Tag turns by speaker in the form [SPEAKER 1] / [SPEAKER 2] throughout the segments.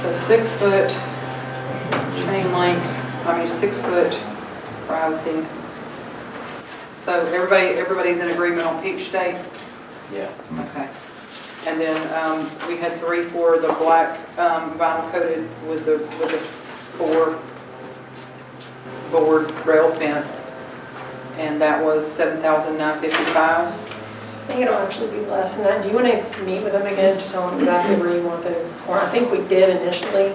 [SPEAKER 1] So six foot chain link, I mean, six foot privacy. So everybody, everybody's in agreement on peach state?
[SPEAKER 2] Yeah.
[SPEAKER 1] Okay. And then um, we had three for the black um, vinyl coated with the, with the four board rail fence. And that was seven thousand nine fifty-five.
[SPEAKER 3] I think it'll actually be less than that. Do you want to meet with them again to tell them exactly where you want the corner? I think we did initially,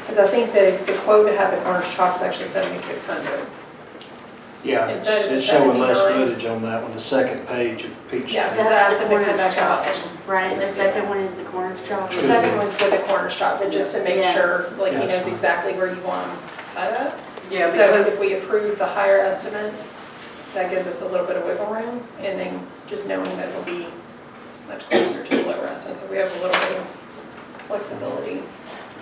[SPEAKER 3] because I think the, the quote to have the corners chopped is actually 7,600.
[SPEAKER 2] Yeah,
[SPEAKER 3] It
[SPEAKER 2] it's
[SPEAKER 3] said
[SPEAKER 2] it's showing less
[SPEAKER 3] 79.
[SPEAKER 2] footage on that one, the second page of Peach.
[SPEAKER 3] Yeah,
[SPEAKER 2] Street.
[SPEAKER 3] because I asked them to come back out.
[SPEAKER 4] Right, the second one is the corner shop.
[SPEAKER 3] The second one's with the corners chopped, but just to make
[SPEAKER 4] Yeah.
[SPEAKER 3] sure, like, he
[SPEAKER 2] Yeah, that's
[SPEAKER 3] knows
[SPEAKER 2] fine.
[SPEAKER 3] exactly where you want them cut up.
[SPEAKER 1] Yeah,
[SPEAKER 3] So
[SPEAKER 1] because,
[SPEAKER 3] if we approve the higher estimate, that gives us a little bit of wiggle room, and then just knowing that it'll be much closer to the lower estimate, so we have a little bit of flexibility.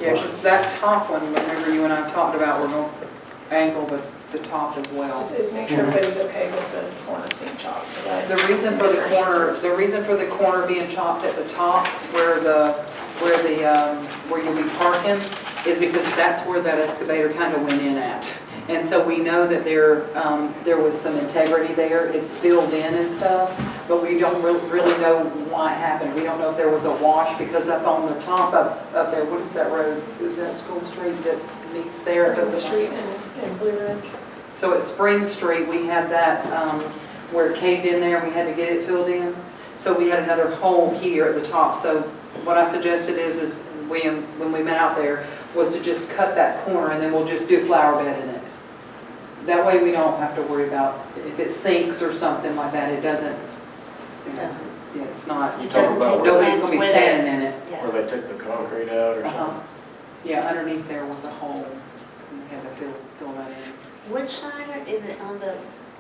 [SPEAKER 1] yeah, 'cause that top one, remember you and I talked about, we're going to angle the, the top as well.
[SPEAKER 3] Just is make sure everybody's okay with the corner being chopped. so that-
[SPEAKER 1] The reason for the corner, the reason for the corner being chopped at the top where the, where the, um, where you'll be parking is because that's where that excavator kind of went in at. And so we know that there, um, there was some integrity there, it's filled in and stuff, but we don't re- really know why it happened. We don't know if there was a wash because up on the top up, up there, what is that road? Is that School Street that meets there?
[SPEAKER 3] Spring Street and, and Blue Ridge.
[SPEAKER 1] So at Spring Street, we had that, um, where it caved in there, and we had to get it filled in. So we had another hole here at the top. So what I suggested is, is we, when we met out there, was to just cut that corner and then we'll just do flower bed in it. That way we don't have to worry about if it sinks or something like that, it doesn't, yeah, it's not,
[SPEAKER 4] It
[SPEAKER 5] Talk
[SPEAKER 4] doesn't
[SPEAKER 5] about
[SPEAKER 4] take
[SPEAKER 5] where-
[SPEAKER 1] nobody's gonna
[SPEAKER 4] offense
[SPEAKER 1] be
[SPEAKER 4] with it.
[SPEAKER 1] standing in it.
[SPEAKER 4] Yeah.
[SPEAKER 5] Or they took the concrete out or
[SPEAKER 1] Uh-huh.
[SPEAKER 5] something.
[SPEAKER 1] Yeah, underneath there was a hole, and we had to fill, fill that in.
[SPEAKER 4] Which side is it on the,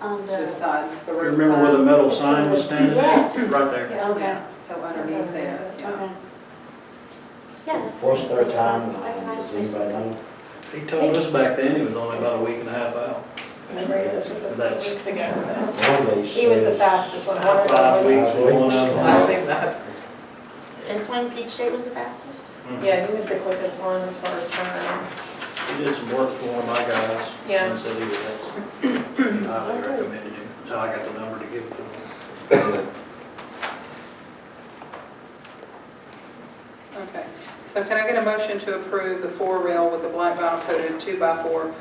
[SPEAKER 4] on
[SPEAKER 1] The
[SPEAKER 4] the?
[SPEAKER 1] side, the road side.
[SPEAKER 2] Remember where the metal sign was standing?
[SPEAKER 4] Yes.
[SPEAKER 2] Right there.
[SPEAKER 3] Yeah.
[SPEAKER 4] Okay,
[SPEAKER 1] Yeah, so underneath there, yeah.
[SPEAKER 4] okay. Yeah. that's-
[SPEAKER 6] What's their timeline?
[SPEAKER 4] That's a nice
[SPEAKER 6] Does anybody know?
[SPEAKER 2] He told us back then he was only about a week and a half out.
[SPEAKER 3] Remember, this was a
[SPEAKER 2] That's-
[SPEAKER 3] few weeks ago.
[SPEAKER 6] One of these
[SPEAKER 3] He was the
[SPEAKER 6] says-
[SPEAKER 3] fastest one. I don't know if it
[SPEAKER 2] Five
[SPEAKER 3] was-
[SPEAKER 2] weeks was one of
[SPEAKER 1] I
[SPEAKER 2] them.
[SPEAKER 1] think that,
[SPEAKER 4] This one, Peach State was the fastest?
[SPEAKER 3] Yeah, he was the quickest one as far as turnaround.
[SPEAKER 2] Mm-hmm. He did some work for one of my guys.
[SPEAKER 3] Yeah.
[SPEAKER 2] And said he was excellent. Highly recommended him. So I got the number to give to him.
[SPEAKER 1] okay. So can I get a motion to approve the four rail with the black vinyl coated two by four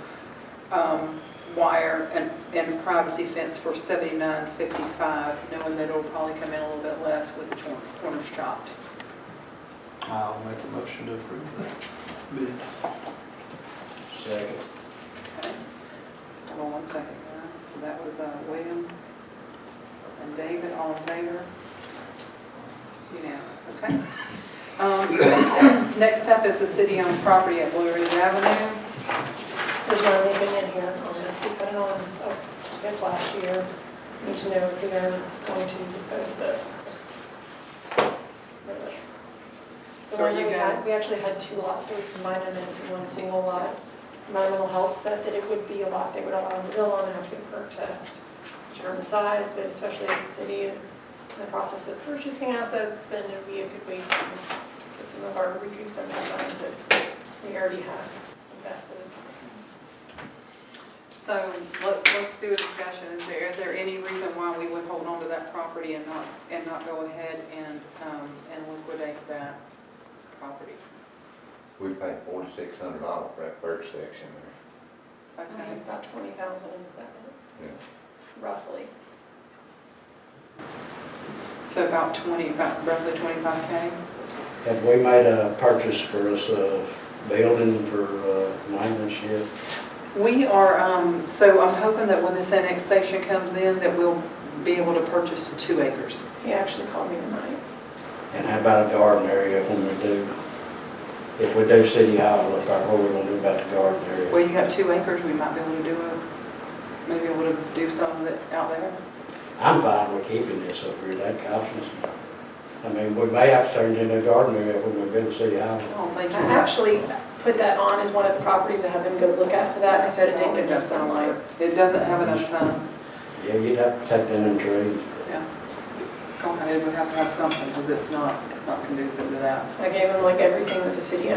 [SPEAKER 1] um, wire and, and privacy fence for seventy-nine fifty-five, knowing that it'll probably come in a little bit less with the cor- corners chopped?
[SPEAKER 2] I'll make a motion to approve that bid.
[SPEAKER 6] Second.
[SPEAKER 1] Okay. Hold on one second, guys. So That was uh, William and David, all in favor? Unanimous, okay. Um, Next up is the city-owned property at Blue Ridge Avenue.
[SPEAKER 3] There's not anything in here on this. We put it on, oh, I guess last year. Need to know if we are going to dispose of this. So
[SPEAKER 1] So are
[SPEAKER 3] where
[SPEAKER 1] you
[SPEAKER 3] you
[SPEAKER 1] guys-
[SPEAKER 3] guys, we actually had two lots, so we combined them into one single lot. My mental health said that it would be a lot they would allow them to build on after the protest. Determine size, but especially if the city is in the process of purchasing assets, then it'd be a good way to get some of our, recoup some of the funds that we already have invested.
[SPEAKER 1] So let's, let's do a discussion. Is there, is there any reason why we would hold on to that property and not, and not go ahead and, um, and liquidate that property?
[SPEAKER 7] We paid forty-six hundred dollars for that first section there.
[SPEAKER 3] We have
[SPEAKER 1] Okay,
[SPEAKER 3] about twenty thousand in the second, roughly.
[SPEAKER 1] so about twenty, about roughly twenty-five K?
[SPEAKER 6] Have we made a purchase for us a building for uh, maintenance yet?
[SPEAKER 1] We are, um, so I'm hoping that when this annexation comes in, that we'll be able to purchase two acres.
[SPEAKER 3] He actually called me tonight.
[SPEAKER 6] And how about a garden area when we do? If we do city hall, what about- what are we gonna do about the garden
[SPEAKER 1] Well,
[SPEAKER 6] area?
[SPEAKER 1] you got two acres, we might be able to do a, maybe able to do some of it out there.
[SPEAKER 6] I'm fine with keeping this over here, that option's not. I mean, we may have to turn it into a garden area when we build city
[SPEAKER 1] I
[SPEAKER 6] hall.
[SPEAKER 1] don't
[SPEAKER 3] I
[SPEAKER 1] think you.
[SPEAKER 3] actually put that on as one of the properties I have them go look at for that, and I said it didn't get enough sunlight.
[SPEAKER 1] It doesn't have enough sun,
[SPEAKER 6] Yeah, you'd have to take down them trees.
[SPEAKER 1] yeah. Go ahead, we have to have something, because it's not, it's not conducive to that.
[SPEAKER 3] I gave them like everything that the city